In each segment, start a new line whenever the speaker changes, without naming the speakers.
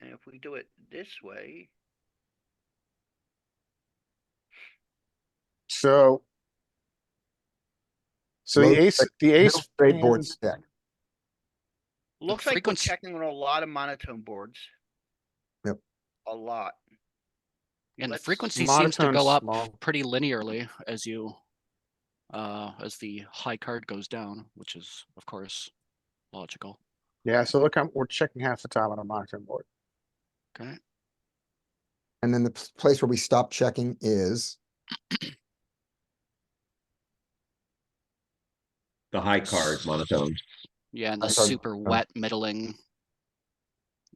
if we do it this way,
So. So the
Most
ace,
like
the
No
ace.
Straight board
hand-
stack.
looks like we're
frequency-
checking on a lot of monotone boards.
Yep.
A lot.
And the
Let's-
frequency seems to
monotone
go up
small.
pretty linearly as you, uh, as the high card goes down, which is of course logical.
Yeah, so look, I'm, we're checking half the time on a monitoring board.
Okay,
And then the p- place where we stop checking is,
The high card monotone.
yeah, and
High
the
card,
super wet middling.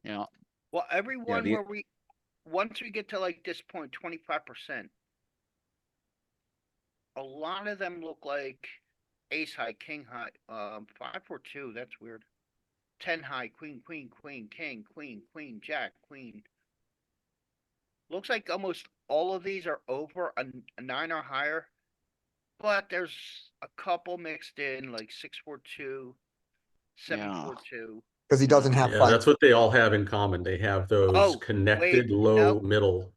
Yeah,
Well, every one
the-
where we, once we get to like this point, twenty-five percent. A lot of them look like ace high, king high, um, five, four, two, that's weird. Ten high, queen, queen, queen, king, queen, queen, jack, queen. Looks like almost all of these are over a n- a nine or higher. But there's a couple mixed in, like six, four, two, seven,
Yeah.
four, two.
because he doesn't have
Yeah,
five,
that's what they all have in common. They have
Oh,
those
wait,
connected
no.
low middle.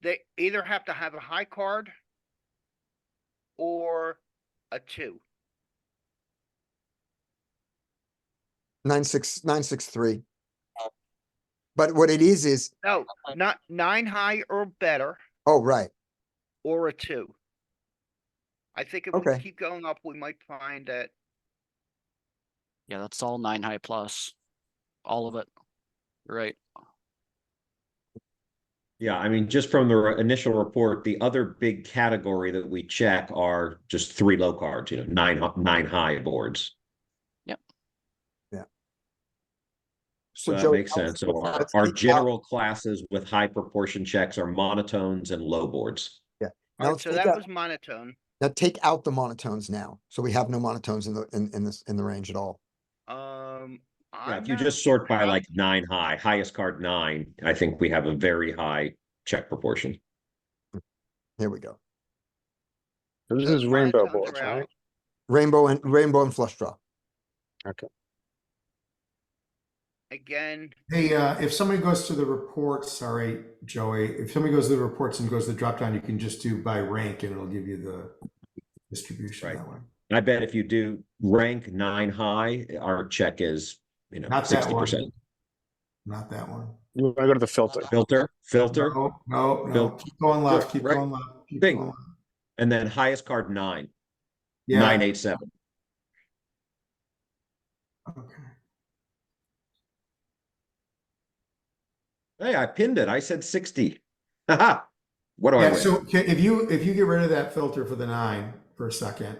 they either have to have a high card or a two.
nine, six, nine, six, three. But what it is, is,
No, not nine high or better
oh, right,
or a two. I think if we
Okay.
keep going up, we might find that,
yeah, that's all nine high plus, all of it. Right,
Yeah, I mean, just from the re- initial report, the other big category that we check are just three low cards, you know, nine, hi- nine high boards.
Yep.
Yeah. So
So that
Joey,
makes
let's-
sense. So our,
let's
our
keep-
general classes with high proportion checks are monotones and low boards.
Now
alright,
let's
so
take
that
out-
was monotone.
now take out the monotones now, so we have no monotones in the, in, in this, in the range at all.
Um.
Yeah,
I'm
if you
not
just sort by
sure how-
like nine high, highest card nine, I think we have a very high check proportion.
Here we go.
So This
So
is rainbow
monotones
boards,
are out.
right?
Rainbow and, rainbow and flush draw.
Again,
Hey, uh, if somebody goes to the report, sorry, Joey, if somebody goes to the reports and goes to the drop down, you can just do by rank and it'll give you the distribution
Right.
that way.
And I bet if you do rank nine high, our check is, you know,
Not that
sixty
one.
percent.
Not that one.
You wanna go to the filter.
Filter, filter,
No, no, no.
Bill.
Keep going left,
Right.
keep going left. keep
Bing.
going left.
and then highest card nine,
Yeah,
nine, eight, seven.
okay.
Hey, I pinned it. I said sixty. Haha. What do I
Yeah,
win?
so ca- if you, if you get rid of that filter for the nine for a second.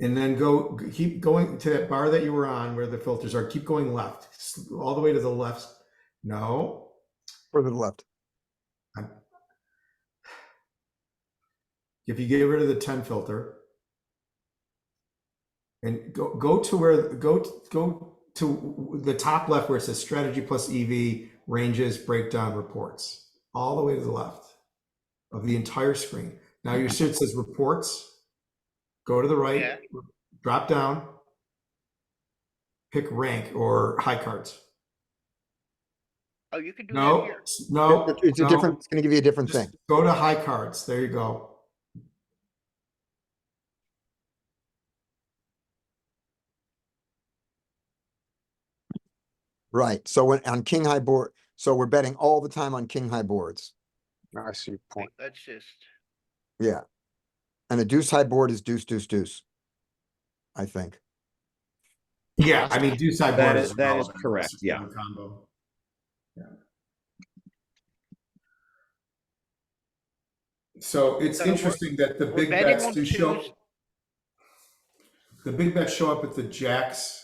And then go, g- keep going to that bar that you were on where the filters are, keep going left, s- all the way to the left. No,
Further to the left.
if you get rid of the 10 filter and go go to where go t- go to the top left where it says strategy plus ev ranges breakdown reports all the way to the left of the entire screen now you see it says reports go to the right
Yeah.
drop down pick rank or high cards
oh, you could do that
no
here.
s-
Oh,
no
It's- It's a
no.
different, it's gonna give you a different
Just
thing.
go to high cards there you go
Right, so when, on king high board, so we're betting all the time on king high boards.
I see your point.
Wait, That's just,
Yeah. And a deuce high board is deuce, deuce, deuce. I think.
Yeah, I mean, do side
That
board
is- that is
relevant.
correct,
It's
yeah.
a Combo. Yeah. So it's
So we're-
interesting that the
we're
big
betting
bets
on
do show.
twos.
The big bets show up at the jacks.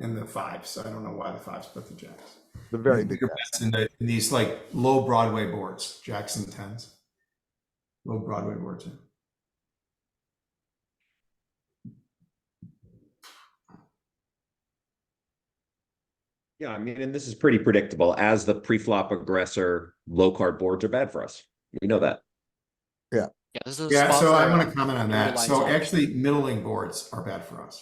And the fives. I don't know why the fives, but the jacks.
The very big.
Bigger bets in the, in these like low Broadway boards, jacks and tens. Low Broadway boards. yeah.
Yeah, I mean, and this is pretty predictable. As the pre-flop aggressor, low card boards are bad for us. We know that.
yeah, this is. a
Yeah,
spot
so I
where
want to comment on that.
realize
So
all-
actually middling boards are bad for us.